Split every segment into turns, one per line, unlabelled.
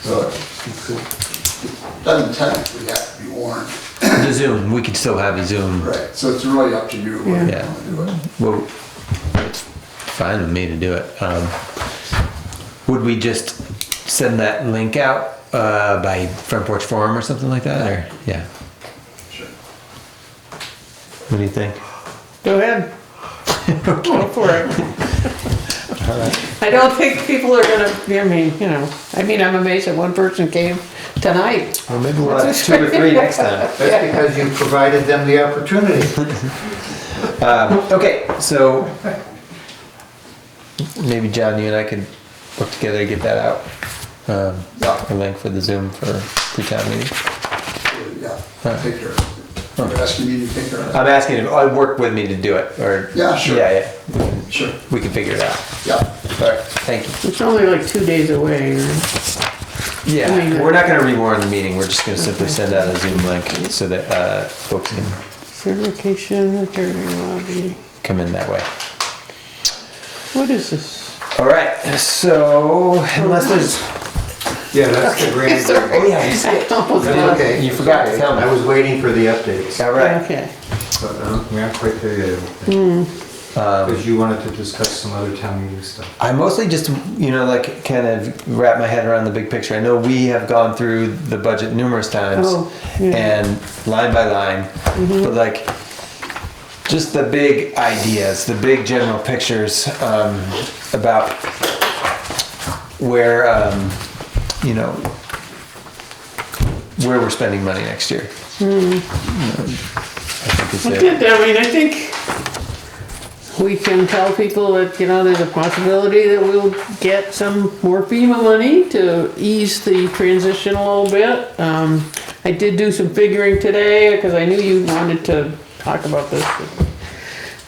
So it doesn't technically have to be warned.
The Zoom, we could still have a Zoom.
Right. So it's really up to you whether you
Yeah.
want to do it.
Well, it's fine with me to do it. Um, would we just send that link out uh, by Front Porch Forum or something like that? Or yeah,
Sure.
what do you think?
Go ahead. Go for it. I don't think people are gonna, I mean, you know, I mean, I'm amazed that one person came tonight.
Well, maybe we'll have two or three next time.
That's because you provided them the opportunity.
Okay, so maybe John, you and I could work together to get that out. Um,
Yeah.
A link for the Zoom for pre-town meeting.
Yeah, take care of it. You're asking me to take care of
I'm asking if I work with me to do it or
Yeah, sure.
yeah, yeah.
it. Sure.
We can figure it out.
Yeah.
All right, thank you.
It's only like two days away. right? I
Yeah,
mean,
we're not gonna rewarn the meeting, we're just gonna simply send out a Zoom link so that, uh, folks can
Certification, attorney lobby.
come in that way.
What is this?
All right, so unless there's,
Yeah, that's the grand.
oh yeah,
I almost
That's
lost it.
okay.
You forgot to tell me.
I was waiting for the updates,
all right.
Okay.
but um, we aren't quite there yet.
Um,
Because you wanted to discuss some other town meeting stuff.
I mostly just, you know, like kind of wrap my head around the big picture. I know we have gone through the budget numerous times
Oh, yeah. Mm-hmm.
and line by line, but like just the big ideas, the big general pictures um, about where, um, you know, where we're spending money next year.
Hmm.
I think it's
I
there.
did, I mean, I think we can tell people that, you know, there's a possibility that we'll get some more FEMA money to ease the transition a little bit. Um, I did do some figuring today, because I knew you wanted to talk about this.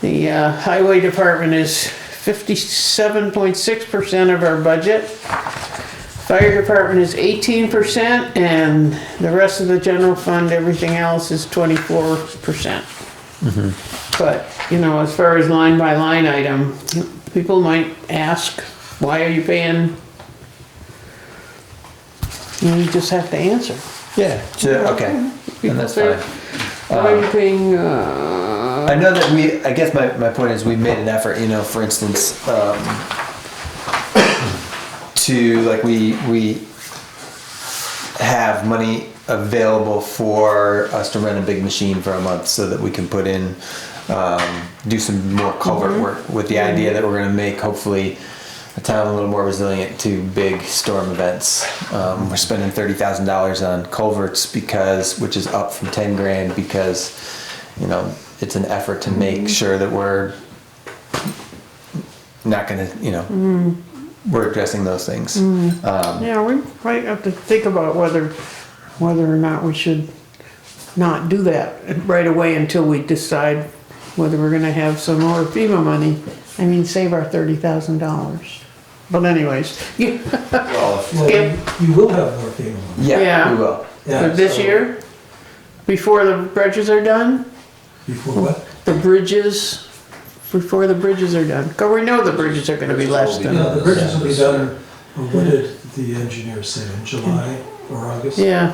The uh, highway department is fifty-seven point six percent of our budget. Fire department is eighteen percent and the rest of the general fund, everything else is twenty-four percent. But, you know, as far as line by line item, people might ask, why are you paying? And You just have to answer.
Yeah, so- okay, and that's
People say,
fine. Um,
Why are you paying, uh,
I know that we, I guess my, my point is we made an effort, you know, for instance, um, to, like, we, we have money available for us to rent a big machine for a month so that we can put in, um, do some more culvert work with the idea that we're gonna make hopefully a town a little more resilient to big storm events. Um, we're spending thirty thousand dollars on culverts because, which is up from ten grand because, you know, it's an effort to make sure that we're not gonna, you know, we're addressing those things. Um,
yeah, we might have to think about whether, whether or not we should not do that right away until we decide whether we're gonna have some more FEMA money. I mean, save our thirty thousand dollars. But anyways, you-
Well,
Yeah.
You you will have more FEMA money.
Yeah,
Yeah.
we will.
Yeah,
For this
so-
year? Before the bridges are done?
Before what?
The bridges, before the bridges are done, 'Cause we know the bridges are gonna be less
Yeah,
than,
the bridges will be done, or what did the engineer say, in July or August?
yeah,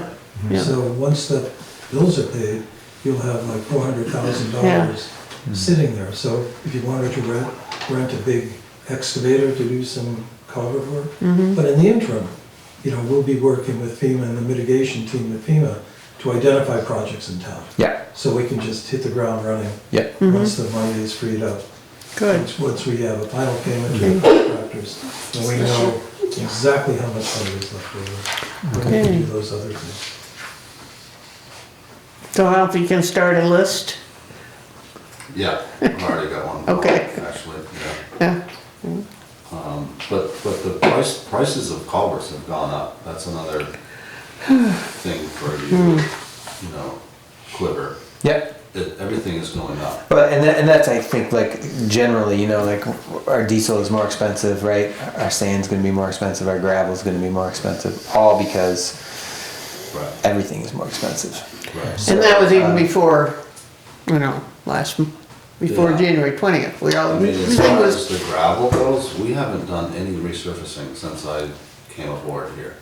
yeah.
So once the bills are paid, you'll have like four hundred thousand dollars sitting there. So if you wanted to rent, rent a big excavator to do some culvert work. But in the interim, you know, we'll be working with FEMA and the mitigation team at FEMA to identify projects in town.
Yeah,
So we can just hit the ground running
yeah.
once the money is freed up.
Good,
Once- Once we have a final payment to the contractors, and we know exactly how much money is left over, we're going to
Okay.
do those other things.
so if you can start a list,
Yeah, I've already got one.
Okay.
Actually, yeah. Um,
yeah,
But, but the price, prices of culverts have gone up. That's another thing for you, you know, quiver.
Yeah.
It- Everything is going up.
But and that, and that's I think like generally you know like our diesel is more expensive right our sand's going to be more expensive our gravel is going to be more expensive all because
Right,
everything is more expensive
right.
and that was even
uh,
before, you know, last, m- before
Yeah.
January twentieth, we all,
I mean, as
everything
far
was,
as the gravel goes, we haven't done any resurfacing since I came aboard here.